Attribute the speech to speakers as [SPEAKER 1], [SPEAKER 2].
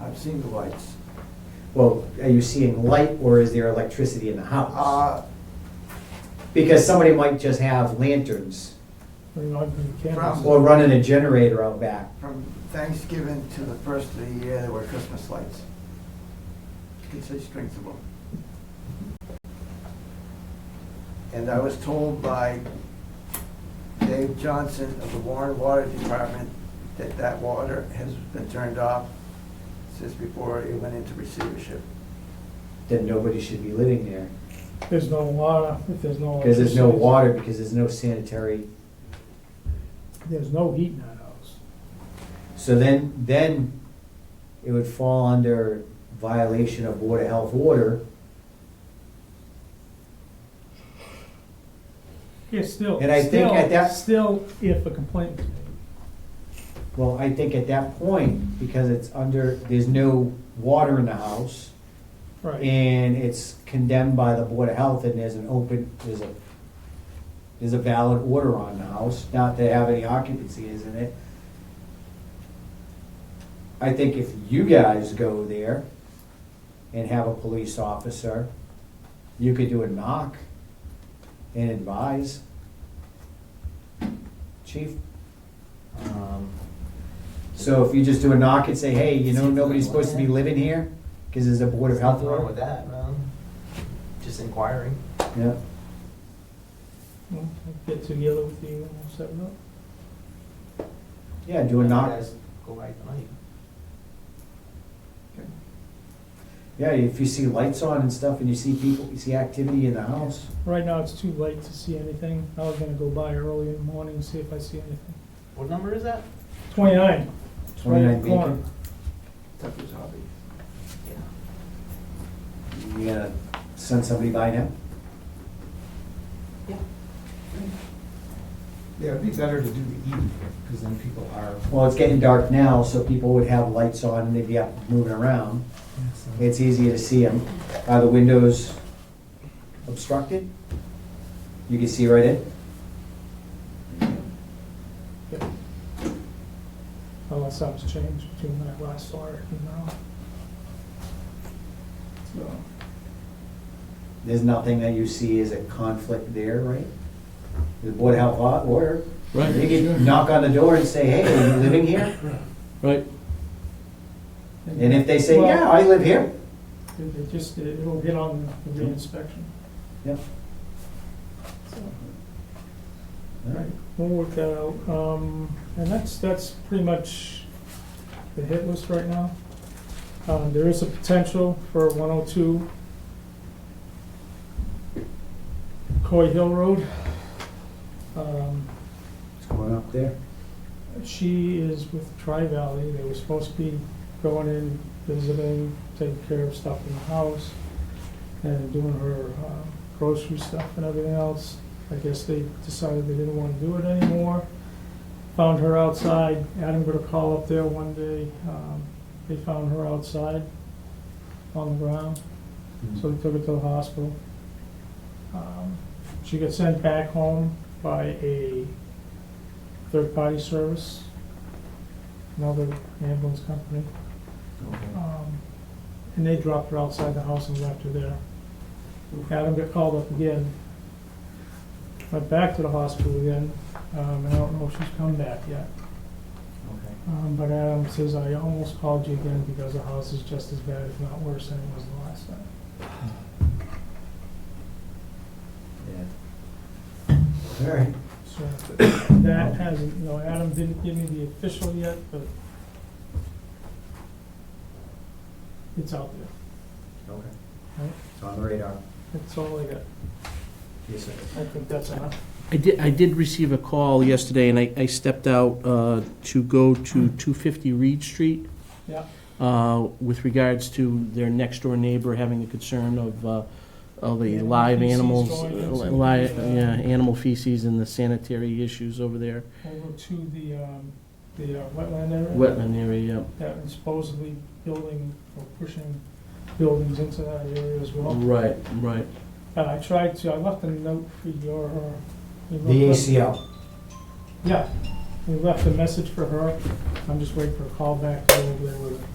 [SPEAKER 1] I've seen the lights.
[SPEAKER 2] Well, are you seeing light or is there electricity in the house?
[SPEAKER 1] Uh,
[SPEAKER 2] Because somebody might just have lanterns
[SPEAKER 3] We're not gonna
[SPEAKER 1] From-
[SPEAKER 3] cancel.
[SPEAKER 2] or running a generator out back.
[SPEAKER 1] From Thanksgiving to the first of the year, there were Christmas lights. You could say strings of them. And I was told by Dave Johnson of the Warren Water Department that that water has been turned off since before it went into receivership.
[SPEAKER 2] Then nobody should be living there.
[SPEAKER 3] There's no water, if there's no.
[SPEAKER 2] Because there's no
[SPEAKER 3] electricity,
[SPEAKER 2] water, because there's no sanitary.
[SPEAKER 3] There's no heat in that house.
[SPEAKER 2] So then, then it would fall under violation of Board of Health order.
[SPEAKER 3] Yeah, still.
[SPEAKER 2] And I think at
[SPEAKER 3] still-
[SPEAKER 2] that-
[SPEAKER 3] Still, if a complaint was made.
[SPEAKER 2] Well, I think at that point, because it's under, there's no water in the house
[SPEAKER 3] Right,
[SPEAKER 2] and it's condemned by the Board of Health and there's an open, there's a, there's a valid order on the house, not to have any occupancy, isn't it? I think if you guys go there and have a police officer, you could do a knock and advise. Chief? um, So if you just do a knock and say, hey, you know, nobody's supposed to be living here, because there's a Board of Health
[SPEAKER 4] Nothing
[SPEAKER 2] order.
[SPEAKER 4] wrong with that, no. Just inquiring.
[SPEAKER 2] Yeah,
[SPEAKER 3] Well, I'll get together with you and we'll set it up.
[SPEAKER 2] yeah, do a
[SPEAKER 4] You
[SPEAKER 2] knock.
[SPEAKER 4] guys Go by tonight.
[SPEAKER 2] Yeah, if you see lights on and stuff and you see people, you see activity in the house.
[SPEAKER 3] Right now, it's too late to see anything. I was gonna go by early in the morning and see if I see anything.
[SPEAKER 4] What number is that?
[SPEAKER 3] Twenty-nine. It's right in
[SPEAKER 2] 29
[SPEAKER 3] the corner.
[SPEAKER 2] Beacon.
[SPEAKER 1] Tucker's hobby.
[SPEAKER 4] Yeah.
[SPEAKER 2] You gonna send somebody by now?
[SPEAKER 5] Yeah, it'd be better to do the evening, because then people are.
[SPEAKER 2] Well, it's getting dark now, so people would have lights on and they'd be up moving around. It's easier to see them. Are the windows obstructed? You can see right in?
[SPEAKER 3] Unless something's changed between when I last saw it and now.
[SPEAKER 1] So,
[SPEAKER 2] There's nothing that you see as a conflict there, right? The Board of Health o- order,
[SPEAKER 6] Right,
[SPEAKER 2] you
[SPEAKER 6] sure.
[SPEAKER 2] can knock on the door and say, hey, are you living here?
[SPEAKER 6] right.
[SPEAKER 2] And if they say,
[SPEAKER 3] Well,
[SPEAKER 2] yeah, I live here,
[SPEAKER 3] It it just, it- it'll get on the reinspection.
[SPEAKER 2] Yep.
[SPEAKER 3] So,
[SPEAKER 2] all right.
[SPEAKER 3] We'll work that out. Um, and that's, that's pretty much the hit list right now. Um, there is a potential for one oh two Coy Hill Road. Um,
[SPEAKER 2] What's going up there?
[SPEAKER 3] She is with Tri Valley. They were supposed to be going in, visiting, taking care of stuff in the house, and doing her uh, grocery stuff and everything else. I guess they decided they didn't want to do it anymore. Found her outside. Adam got a call up there one day. Um, They found her outside on the ground, so they took her to the hospital. Um, She got sent back home by a third-party service, another ambulance company. Um, And they dropped her outside the house and left her there. Adam got called up again, went back to the hospital again, um, and I don't know if she's come back yet.
[SPEAKER 2] Okay.
[SPEAKER 3] Um, But Adam says, I almost called you again because the house is just as bad, if not worse, than it was the last time.
[SPEAKER 2] Yeah. All right.
[SPEAKER 3] So that hasn't, you know, Adam didn't give me the official yet, but it's out there.
[SPEAKER 2] Okay.
[SPEAKER 3] Right.
[SPEAKER 2] It's on the radar.
[SPEAKER 3] That's all I got.
[SPEAKER 2] Yes, sir.
[SPEAKER 3] I think that's enough.
[SPEAKER 6] I did, I did receive a call yesterday, and I, I stepped out uh, to go to 250 Reed Street
[SPEAKER 3] Yeah.
[SPEAKER 6] uh, with regards to their next-door neighbor having a concern of, uh, of a
[SPEAKER 3] Animal
[SPEAKER 6] live
[SPEAKER 3] feces
[SPEAKER 6] animals,
[SPEAKER 3] going
[SPEAKER 6] uh,
[SPEAKER 3] into
[SPEAKER 6] li-
[SPEAKER 3] the, uh,
[SPEAKER 6] yeah, animal feces and the sanitary issues over there,
[SPEAKER 3] Over to the, um, the uh, wetland area.
[SPEAKER 6] wetland area,
[SPEAKER 3] That is supposedly building or pushing buildings into that area as
[SPEAKER 6] yeah.
[SPEAKER 3] well.
[SPEAKER 6] Right, right.
[SPEAKER 3] And I tried to, I left a note for your, uh, you
[SPEAKER 2] The
[SPEAKER 3] left a-
[SPEAKER 2] ACL.
[SPEAKER 3] Yeah, we left a message for her. I'm just waiting for a call back to go over there with her.